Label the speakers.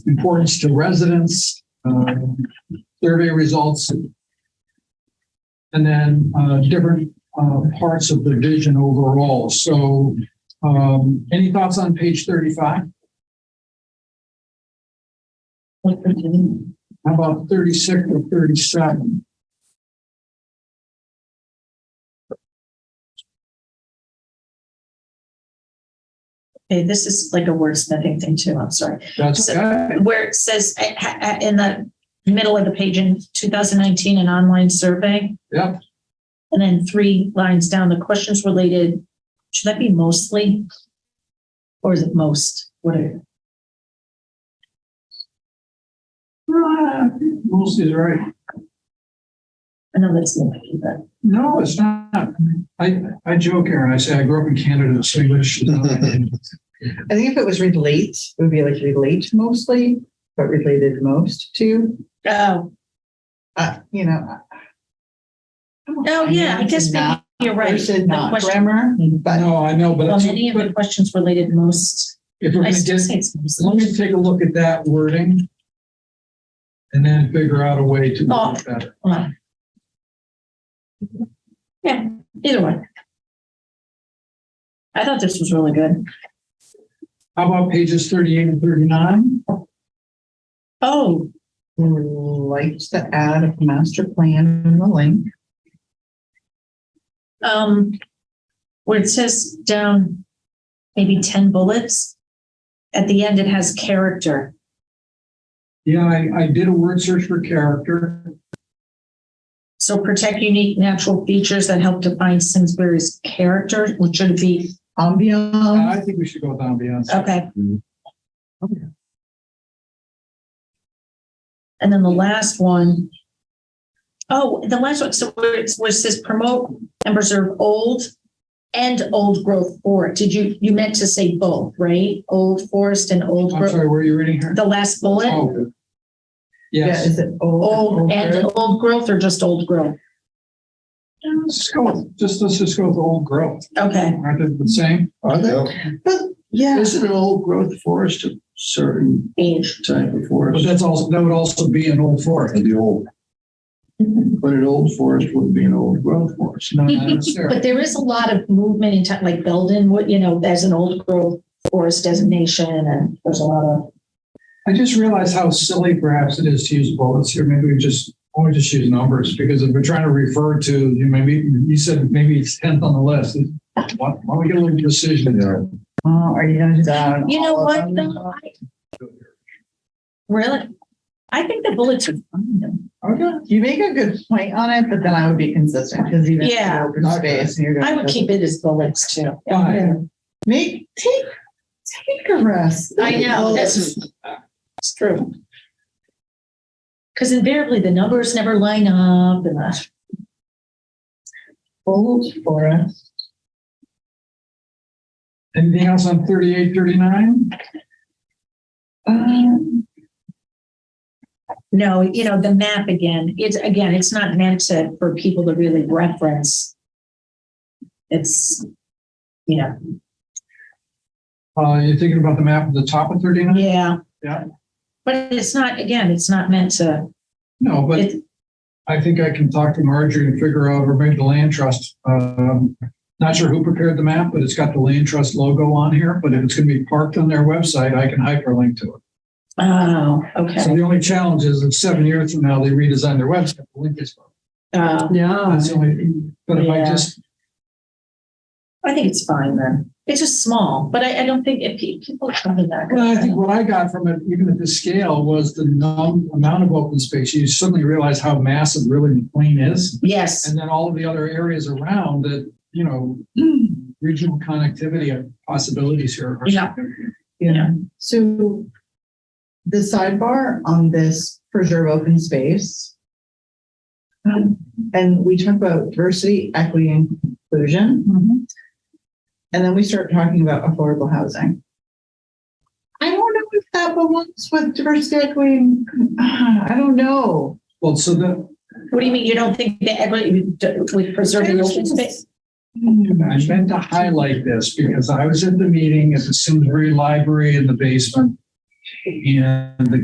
Speaker 1: importance to residents, um, survey results, and then uh, different uh, parts of the vision overall. So um, any thoughts on page 35? How about 36 or 37?
Speaker 2: Okay, this is like a wordsmithing thing too, I'm sorry.
Speaker 1: That's okay.
Speaker 2: Where it says eh, eh, eh, in the middle of the page in 2019, an online survey,
Speaker 1: Yep.
Speaker 2: and then three lines down, the questions related, should that be mostly? Or is it most? What are,
Speaker 1: Uh, Mostly is right.
Speaker 2: I know that's limited, but
Speaker 1: No, it's not. I, I joke, Aaron, I say I grew up in Canada, so you should know. that.
Speaker 3: I think if it was relate, it would be like relate mostly, but related most to,
Speaker 2: oh,
Speaker 3: uh, you know.
Speaker 2: oh, yeah, I guess maybe
Speaker 3: Not
Speaker 2: you're right.
Speaker 3: Versus
Speaker 2: The
Speaker 3: not
Speaker 2: question-
Speaker 3: grammar, but
Speaker 1: No, I know, but
Speaker 2: Well,
Speaker 1: it's-
Speaker 2: many of the
Speaker 1: but
Speaker 2: questions related most,
Speaker 1: if we're
Speaker 2: I
Speaker 1: gonna
Speaker 2: still
Speaker 1: get,
Speaker 2: say it's
Speaker 1: let
Speaker 2: mostly.
Speaker 1: me take a look at that wording and then figure out a way to
Speaker 2: Oh.
Speaker 1: make it better.
Speaker 2: Well. Yeah, either way. I thought this was really good.
Speaker 1: How about pages thirty-eight and thirty-nine?
Speaker 2: Oh,
Speaker 3: we would like to add a master plan in the link.
Speaker 2: um, where it says down maybe ten bullets. At the end, it has character.
Speaker 1: Yeah, I, I did a word search for character.
Speaker 2: So protect unique natural features that help define Simsbury's character, which should be,
Speaker 3: Ambiance,
Speaker 1: I think we should go with ambiance.
Speaker 2: Um, okay.
Speaker 4: Mhm.
Speaker 3: Okay.
Speaker 2: And then the last one. Oh, the last one, so where it where it says promote and preserve old and old growth forest. Did you, you meant to say both, right? Old forest and old
Speaker 1: I'm
Speaker 2: growth,
Speaker 1: sorry, where are you reading here?
Speaker 2: the last bullet,
Speaker 1: Oh.
Speaker 3: yeah,
Speaker 1: Yes,
Speaker 3: is it old?
Speaker 2: old and
Speaker 3: older?
Speaker 2: old growth or just old growth?
Speaker 1: let's just go, with- just, let's just go with old growth.
Speaker 2: Okay,
Speaker 1: Aren't they the same?
Speaker 3: Yeah,
Speaker 5: Isn't an old growth forest a certain
Speaker 2: age.
Speaker 5: type of
Speaker 1: But
Speaker 5: forest?
Speaker 1: that's also, that would also be an old forest.
Speaker 5: The old, but an old forest wouldn't be an old growth forest.
Speaker 1: No, not necessarily.
Speaker 2: But there is a lot of movement in time, like Belden, what, you know, as an old growth forest designation and there's a lot of,
Speaker 1: I just realized how silly perhaps it is to use bullets here. Maybe we just, or we just use numbers because if we're trying to refer to, you know, maybe, you said maybe it's tenth on the list. Why why don't we get a little precision there?
Speaker 3: oh, are you gonna do that? on
Speaker 2: you know
Speaker 3: all of
Speaker 2: what?
Speaker 3: them?
Speaker 2: though? I- Really? I think the bullets are fine though.
Speaker 3: Okay, you make a good point on it, but then I would be consistent, because even if
Speaker 2: Yeah.
Speaker 3: you're open space, and you're gonna.
Speaker 2: I would keep it as bullets too.
Speaker 1: Fine.
Speaker 3: Make, take, take a rest.
Speaker 2: I know, that's, it's true. Because invariably the numbers never line up and that.
Speaker 3: Old forest.
Speaker 1: Anything else on thirty-eight, thirty-nine?
Speaker 3: Um,
Speaker 2: No, you know, the map again, it's, again, it's not meant to, for people to really reference. It's, you know,
Speaker 1: Uh, you're thinking about the map at the top of thirty-nine?
Speaker 2: yeah.
Speaker 1: Yeah.
Speaker 2: But it's not, again, it's not meant to,
Speaker 1: No, but
Speaker 2: it's,
Speaker 1: I think I can talk to Marjorie and figure out, or maybe the land trust. Um, not sure who prepared the map, but it's got the land trust logo on here, but if it's gonna be parked on their website, I can hyperlink to it.
Speaker 2: oh,
Speaker 1: So
Speaker 2: okay.
Speaker 1: the only challenge is if seven years from now, they redesign their website, the link is.
Speaker 2: Uh,
Speaker 3: Yeah.
Speaker 1: That's the only, but if I
Speaker 2: Yeah.
Speaker 1: just,
Speaker 2: I think it's fine then. It's just small, but I, I don't think if pe- people come to that.
Speaker 1: well, I think what I got from it, even at this scale, was the num- amount of open space. You suddenly realize how massive really McLean is.
Speaker 2: Yes,
Speaker 1: And then all of the other areas around that, you know,
Speaker 3: hmm,
Speaker 1: regional connectivity possibilities here. are-
Speaker 2: Yeah.
Speaker 3: Yeah, so the sidebar on this preserve open space. um, And we talk about diversity, equity, and inclusion,
Speaker 2: Mm-hmm.
Speaker 3: and then we start talking about affordable housing. I don't know if that belongs with diversity, equity, and- I don't know.
Speaker 1: Well, so the,
Speaker 2: what do you mean? You don't think the equity with preserving open space?
Speaker 1: I
Speaker 2: Mm-hmm.
Speaker 1: meant to highlight this because I was at the meeting at the Simsbury Library in the basement. And the